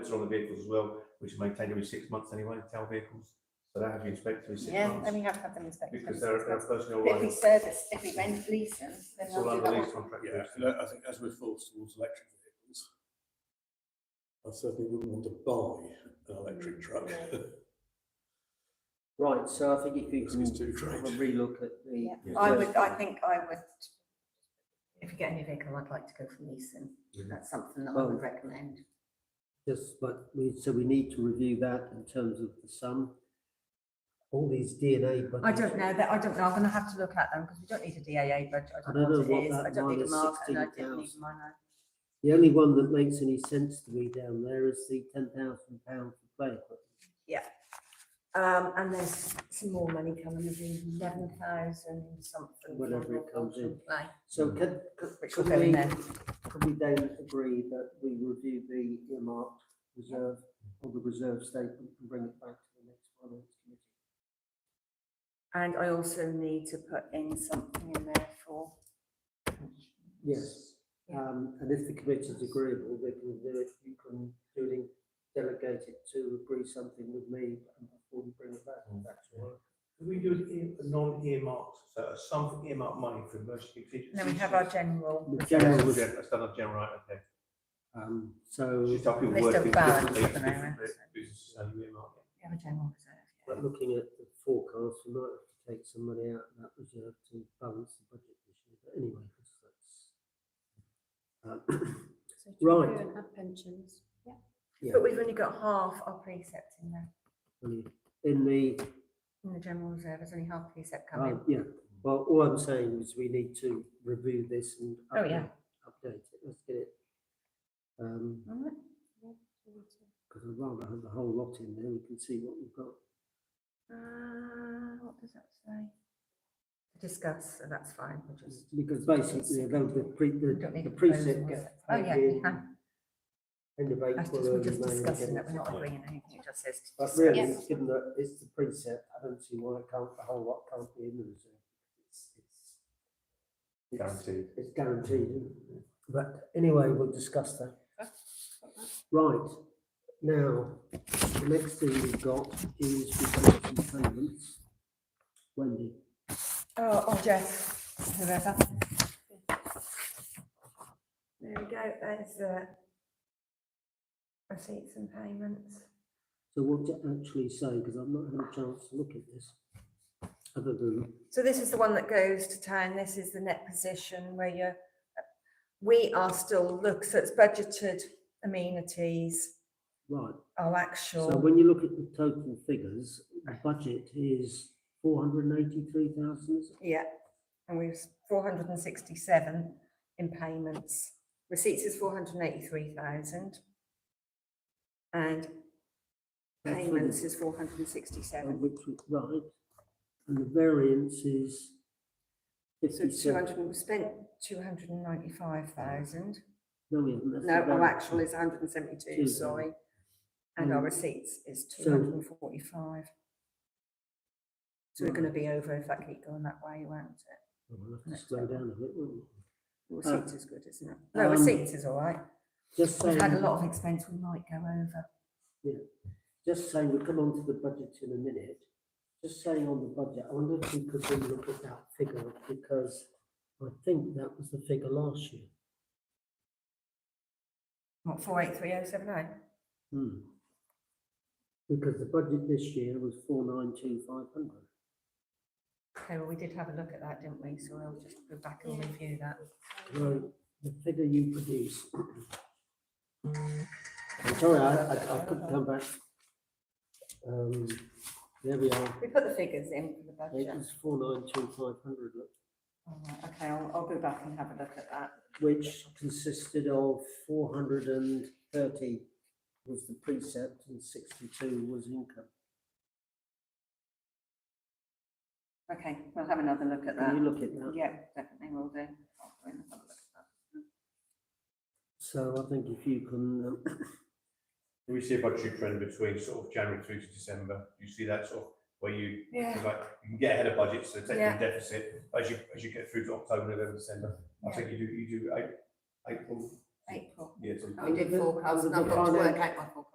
It's on the vehicles as well, which is maintained every six months anyway, tow vehicles. So that has to be inspected every six Yeah, then months we have to have them inspected. because they're, they're personnel If we liable. service, if we rent lease them, then It's all they'll do under that. lease one. contract. Yeah, and I I think as we're forced towards electric vehicles, I certainly wouldn't want to buy an electric truck. Right, so I think if you Because it's can too great. probably look at the, Yeah, Yeah. I would, I think I would. If you get a new vehicle, I'd like to go for leasing. Mhm. That's something that I Oh. would recommend. just, but we, so we need to review that in terms of the sum. All these DNA budgets. I don't know, that, I don't know, I'm gonna have to look at them, because we don't need a DAA budget, I don't know what it is, that I don't need a minus mark, and I don't need 16,000. minor. The only one that makes any sense to me down there is the ten thousand pound for play equipment. Um, and there's some more money coming, there's eleven thousand something. Whatever from it comes in. Play, So Mm. could, could- Which will could go in we, there, could we then agree that we review the earmarked reserve or the reserve statement and bring it back to the next finance committee? and I also need to put in something in there for, Yes, Yeah. um, and if the committee's agreeable, they can do it, you can do it, delegate it to agree something with me and before we bring it back, Mm. that's all. Do we do it in a non-earmarked, so a sum for earmarked money for emergency contingencies? and then we have our general. The Yeah, general, yeah, that's done up general, right, okay. um, It's so, just how people They're work still in balanced different at the places, moment, different so. businesses, how you earmark it. We have a general reserve. but looking at the forecast, we might have to take some money out of that reserve to balance the budget this year, but anyway, that's. um, Right. And have pensions. Yeah, But we've only got half our precept in there, only in the, in the general reserve, there's only half precept coming. uh, yeah, well, all I'm saying is we need to review this and. Oh, yeah. update- Update it, let's get it. Um, Alright. Because I'd rather have the whole lot in there, we can see what we've got. Uh, what does that say? Discuss, so that's fine, we'll just. Because basically, although the pre, we the, don't need the a precinct proposal, is gets. it? Oh, paid yeah, we in can. End of That's April, just, we're early just May. we discussing get it, we're not Yeah. agreeing anything, it just says to But discuss. really, Yes. given that it's the precept, I don't see why it can't, the whole lot can't be in the reserve. It's- it's- it's- Guaranteed. It's guaranteed, isn't it? but anyway, we'll discuss that. Right, now, the next thing we've got is reports and payments. Wendy. Oh, or Jeff, whoever. There we go, there's, uh, receipts and payments. So what to actually say, because I've not had a chance to look at this, other than, So this is the one that goes to town, this is the net position where you're, we are still look, so it's budgeted amenities, right, our so actual. when you look at the total figures, the budget is four hundred and eighty-three thousand, Yeah, and we've four hundred and sixty-seven in payments. Receipts is four hundred and eighty-three thousand. And That's for the- payments is four hundred and sixty-seven, which is right, and the variance is so two fifty-seven. hundred, we spent two hundred and ninety-five thousand. No, we haven't, that's the No, our variance. actual is hundred and seventy-two, Two, sorry. And our Mm. receipts is So- two hundred and forty-five. So we're gonna Right. be over if that keep going that way, won't it? Oh, We'll have to Next slow one. down a bit, won't we? Receipts is good, isn't it? No, Uh, um, receipts is all right. Just We've had a saying, lot of expense, we might go over. just saying, we'll come on to the budget in a minute. Just saying on the budget, I wonder if we could then look at that figure, because I think that was the figure last year. What, four eight three oh seven oh? Hmm. Because the budget this year was four nine two five hundred. Okay, well, we did have a look at that, didn't we? So we'll just go back and Yeah. review that. Well, the figure you produce. I'm sorry, I, I, I couldn't come back. Um, there we are. We put the figures in for the It budget. was four nine two five hundred, All right, Okay, I'll, I'll go back and have a look at that. which consisted of four hundred and thirty was the precept and sixty-two was income. Okay, we'll have another look at Can you that. look at that? Yeah, definitely will do. I'll go in and have a look at that. So I think if you can, um, Can we see a budgetary trend between sort of January through to December? Do you see that sort of where you, Yeah. like, you can get ahead of budget, so take the Yeah. deficit as you, as you get through to October, November, December. I Yeah. think you do, you do eight, April, April. yeah, to We did Under the- forecast, under and I've um, the got to work finance- out my forecast.